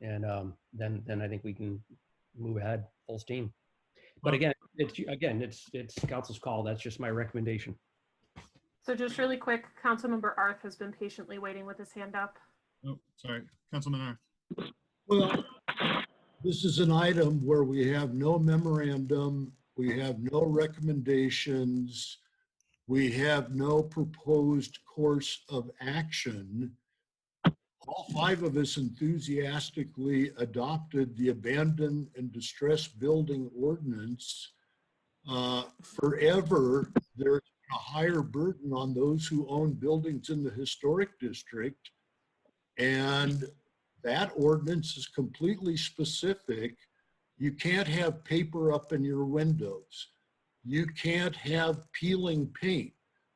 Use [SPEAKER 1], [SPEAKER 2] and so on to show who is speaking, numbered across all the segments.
[SPEAKER 1] and um, then then I think we can move ahead full steam. But
[SPEAKER 2] Well-
[SPEAKER 1] again, it's again, it's it's council's call. That's just my recommendation.
[SPEAKER 3] So just really quick, Councilmember Arth has been patiently waiting with his hand up.
[SPEAKER 2] Oh, sorry, Councilman Arth.
[SPEAKER 4] Well, this is an item where we have no memorandum, we have no recommendations, we have no proposed course of action. All five of us enthusiastically adopted the abandoned and distressed building ordinance. Uh, Forever, there's a higher burden on those who own buildings in the historic district. And that ordinance is completely specific. You can't have paper up in your windows. You can't have peeling paint.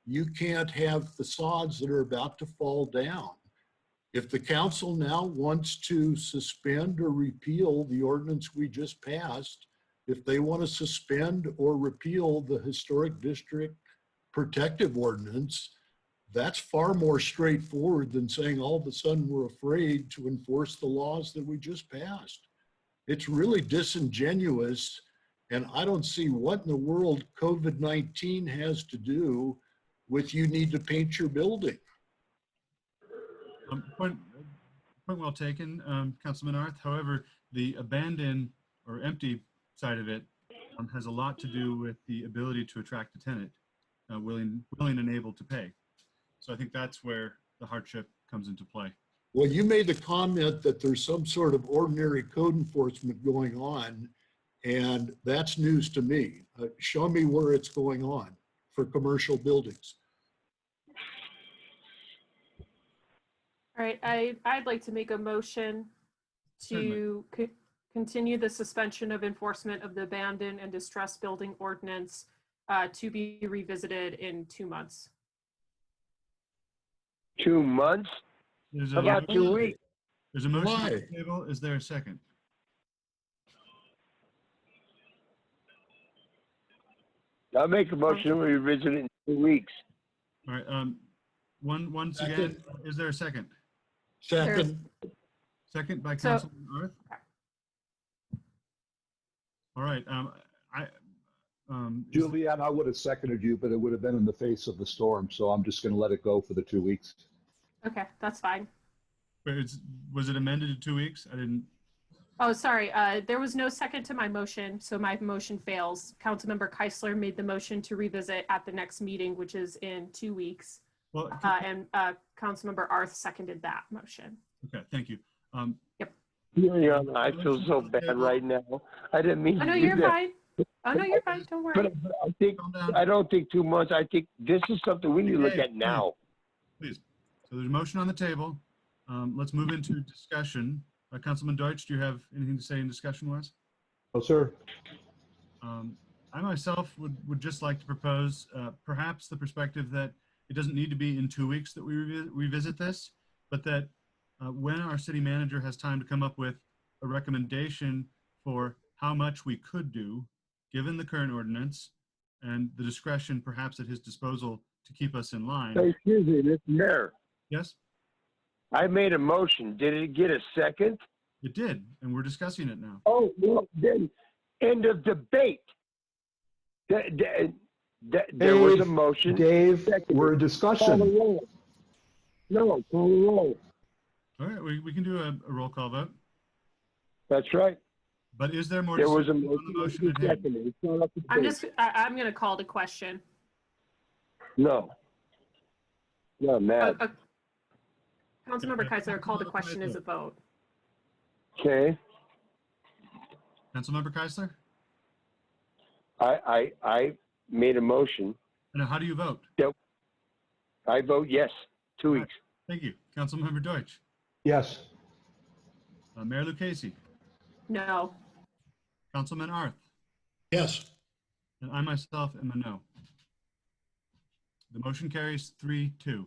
[SPEAKER 4] You can't have facades that are about to fall down. If the council now wants to suspend or repeal the ordinance we just passed, if they want to suspend or repeal the historic district protective ordinance, that's far more straightforward than saying all of a sudden we're afraid to enforce the laws that we just passed. It's really disingenuous, and I don't see what in the world COVID-19 has to do with you need to paint your building.
[SPEAKER 2] Um, Point, point well taken, um, Councilman Arth. However, the abandoned or empty side of it um, has a lot to do with the ability to attract a tenant, uh, willing, willing and able to pay. So I think that's where the hardship comes into play.
[SPEAKER 4] Well, you made the comment that there's some sort of ordinary code enforcement going on, and that's news to me. Uh, Show me where it's going on for commercial buildings.
[SPEAKER 3] All right, I, I'd like to make a motion to co- continue the suspension of enforcement of the abandoned and distressed building ordinance uh, to be revisited in two months.
[SPEAKER 5] Two months?
[SPEAKER 2] There's a,
[SPEAKER 5] About two weeks?
[SPEAKER 2] there's a motion on
[SPEAKER 4] Why?
[SPEAKER 2] the table. Is there a second?
[SPEAKER 5] I'll make a motion to
[SPEAKER 3] Oh.
[SPEAKER 5] revisit it in two weeks.
[SPEAKER 2] All right, um, one, once again, is there a second?
[SPEAKER 4] Second,
[SPEAKER 2] Second by
[SPEAKER 3] So-
[SPEAKER 2] Councilman Arth? All right, um, I, um, is-
[SPEAKER 6] Julianne, I would have seconded you, but it would have been in the face of the storm, so I'm just going to let it go for the two weeks.
[SPEAKER 3] Okay, that's fine.
[SPEAKER 2] wait, it's- was it amended to two weeks? I didn't,
[SPEAKER 3] Oh, sorry, uh, there was no second to my motion, so my motion fails. Councilmember Keisler made the motion to revisit at the next meeting, which is in two weeks.
[SPEAKER 2] well,
[SPEAKER 3] Uh, And uh, Councilmember Arth seconded that motion.
[SPEAKER 2] okay, thank you. Um,
[SPEAKER 5] Juliana, I feel so bad right now. I didn't mean
[SPEAKER 3] Oh,
[SPEAKER 5] to
[SPEAKER 3] no,
[SPEAKER 5] do
[SPEAKER 3] you're
[SPEAKER 5] that.
[SPEAKER 3] fine. Oh, no, you're fine, don't worry.
[SPEAKER 5] But but I think,
[SPEAKER 2] calm down,
[SPEAKER 5] I don't think two months. I think this is something we need to look at now.
[SPEAKER 2] please. So there's a motion on the table. Um, let's move into discussion. Uh, Councilman Deutsch, do you have anything to say in discussion wise?
[SPEAKER 6] Oh, sir.
[SPEAKER 2] Um, I myself would, would just like to propose uh, perhaps the perspective that it doesn't need to be in two weeks that we revi- revisit this, but that uh, when our city manager has time to come up with a recommendation for how much we could do, given the current ordinance and the discretion perhaps at his disposal to keep us in line.
[SPEAKER 5] Hey, excuse me, Mr. Mayor,
[SPEAKER 2] Yes,
[SPEAKER 5] I made a motion. Did it get a second?
[SPEAKER 2] it did, and we're discussing it now.
[SPEAKER 5] Oh, well, then, end of debate. Th- th- th- There was a
[SPEAKER 6] Dave,
[SPEAKER 5] motion.
[SPEAKER 6] Dave, we're in
[SPEAKER 5] Call the
[SPEAKER 6] discussion.
[SPEAKER 5] roll. No, call the roll.
[SPEAKER 2] All right, we, we can do a, a roll call vote,
[SPEAKER 5] That's right.
[SPEAKER 2] but is there more?
[SPEAKER 5] There was a
[SPEAKER 2] discussion on
[SPEAKER 5] motion.
[SPEAKER 2] the
[SPEAKER 5] Motion
[SPEAKER 2] at hand?
[SPEAKER 5] seconded. It's not up to
[SPEAKER 3] I'm
[SPEAKER 5] date.
[SPEAKER 3] just, I, I'm gonna call the question.
[SPEAKER 5] No. No,
[SPEAKER 3] Uh,
[SPEAKER 5] Matt.
[SPEAKER 3] uh, oh. Councilmember Keisler called the question as a vote.
[SPEAKER 5] Okay.
[SPEAKER 2] Councilmember Keisler?
[SPEAKER 5] I, I, I made a motion.
[SPEAKER 2] And how do you vote?
[SPEAKER 5] I vote yes. Two weeks.
[SPEAKER 2] Thank you. Councilmember Deutsch,
[SPEAKER 6] Yes.
[SPEAKER 2] uh, Mayor Lucchese,
[SPEAKER 3] No.
[SPEAKER 2] Councilman Arth,
[SPEAKER 4] yes.
[SPEAKER 2] and I myself am a no. The motion carries three, two.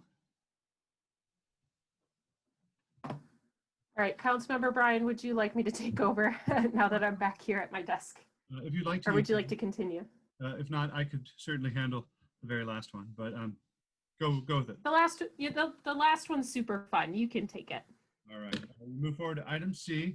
[SPEAKER 3] All right, Councilmember Brian, would you like me to take over now that I'm back here at my desk?
[SPEAKER 2] Uh, If you'd like to.
[SPEAKER 3] Or would you like to continue?
[SPEAKER 2] Uh, if not, I could certainly handle the very last one, but, um, go, go with it.
[SPEAKER 3] The last, yeah, the, the last one's super fun. You can take it.
[SPEAKER 2] All right. We'll uh, Move forward to item C,